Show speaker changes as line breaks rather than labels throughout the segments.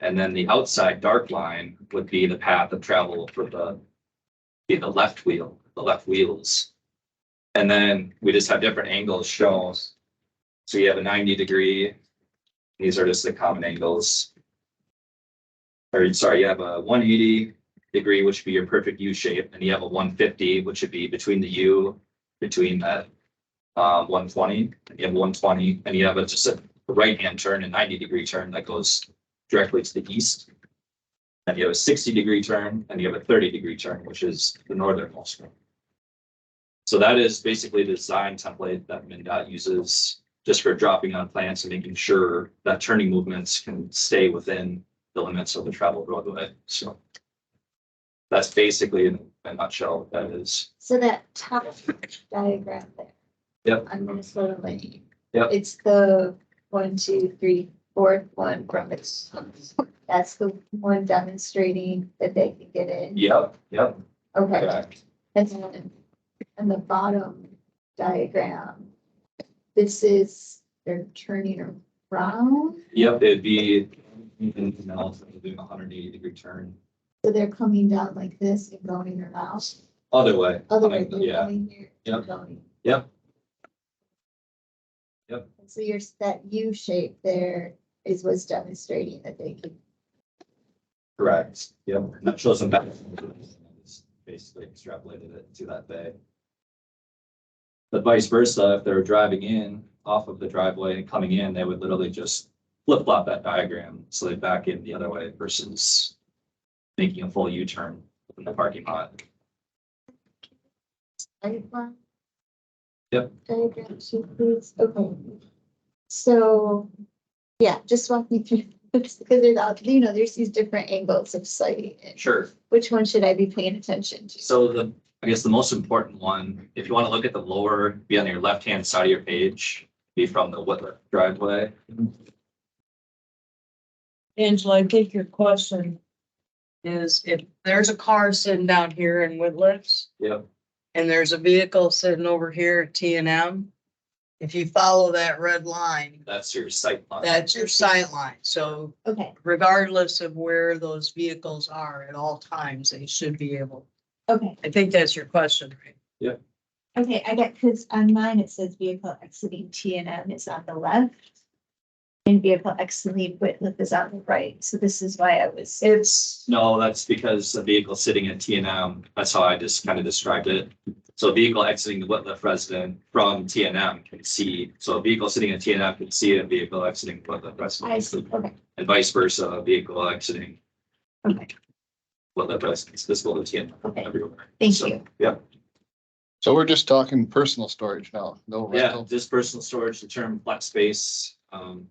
And then the outside dark line would be the path of travel for the, be the left wheel, the left wheels. And then we just have different angles shown. So you have a ninety degree. These are just the common angles. Or sorry, you have a one eighty degree, which would be your perfect U shape, and you have a one fifty, which would be between the U, between that uh, one twenty, you have one twenty, and you have a, just a right-hand turn and ninety degree turn that goes directly to the east. And you have a sixty degree turn and you have a thirty degree turn, which is the northernmost one. So that is basically the design template that MinDOT uses just for dropping on plans and making sure that turning movements can stay within the limits of the traveled roadway. So that's basically in a nutshell what that is.
So that top diagram there.
Yep.
On Minnesota Lane.
Yep.
It's the one, two, three, fourth one from its. That's the one demonstrating that they can get in.
Yep, yep,
Okay.
correct.
And then on the bottom diagram, this is, they're turning around,
Yep, it'd be, you know, doing a hundred eighty degree turn.
so they're coming down like this and going around.
Other way.
Other way, they're
Yeah.
going here. and
Yep.
going.
Yep. Yep.
And So your, that U shape there is what's demonstrating that they can,
Correct, yep, and that shows them back. Basically extrapolated it to that bay. But vice versa, if they were driving in off of the driveway and coming in, they would literally just flip flop that diagram, so they back in the other way versus. Making a full U-turn in the parking lot.
I did one.
Yep.
Diagram sheet, please, okay. So, yeah, just walk me through, because there's, all- uh, you know, there's these different angles of sight. and
Sure.
Which one should I be paying attention to?
So the, I guess the most important one, if you want to look at the lower, be on your left-hand side of your page, be from the Whitler driveway.
Angela, I think your question is if there's a car sitting down here in Woodlands.
Yep.
And there's a vehicle sitting over here at T and M. If you follow that red line,
That's your sight line.
that's your sight line. So
Okay,
regardless of where those vehicles are at all times, they should be able,
okay.
I think that's your question, right?
Okay, I got, because on mine it says vehicle exiting T and M is on the left. And vehicle exiting Whitliff is on the right, so this is why I was.
It's,
No, that's because a vehicle sitting at T and M, that's how I just kind of described it. So a vehicle exiting the Whitliff resident from T and M can see, so a vehicle sitting at T and M can see a vehicle exiting Whitliff
I see,
resident.
okay,
And vice versa, a vehicle exiting
okay,
Whitliff residence, visible to T and M
okay,
everywhere.
thank
So,
you.
Yep,
So we're just talking personal storage now, no
yeah,
rental.
just personal storage, the term flex space, um.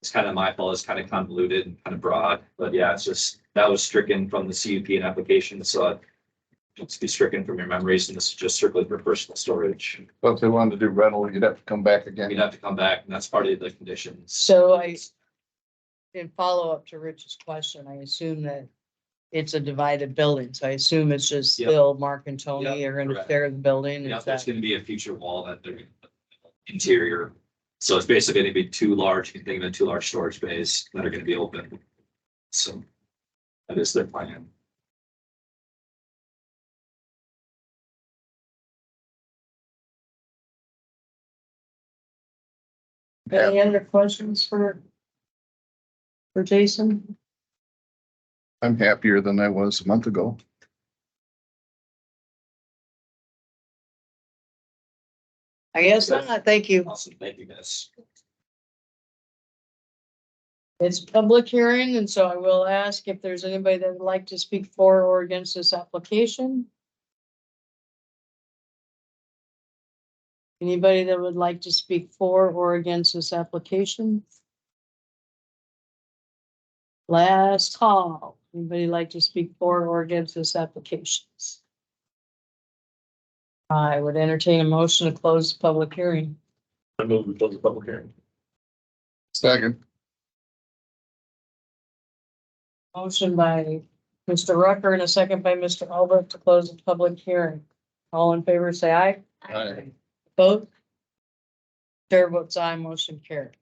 It's kind of my fault, it's kind of convoluted and kind of broad, but yeah, it's just, that was stricken from the CUP and application, so. it- It's be stricken from your memories and this is just strictly for personal storage.
So if they wanted to do rental, you'd have to come back
You'd
again.
have to come back and that's part of the conditions.
so I, in follow up to Rich's question, I assume that it's a divided building. So I assume it's just
Yep.
Bill, Mark and Tony
Yep,
are gonna
correct.
share the building.
Yeah,
Is
there's
that,
gonna be a future wall that they're interior. So it's basically gonna be two large, you can think of it, two large storage bays that are gonna be open. So that is their plan.
any other questions for? For Jason?
I'm happier than I was a month ago.
I guess not. Thank you.
Awesome, thank you guys.
It's public hearing, and so I will ask if there's anybody that would like to speak for or against this application. Anybody that would like to speak for or against this application? Last call. Anybody like to speak for or against this application? I would entertain a motion to close the public hearing.
I move we close the public hearing.
Second,
Motion by Mr. Rucker and a second by Mr. Albert to close the public hearing. All in favor, say aye.
Aye.
Vote. Chair votes aye, motion carried.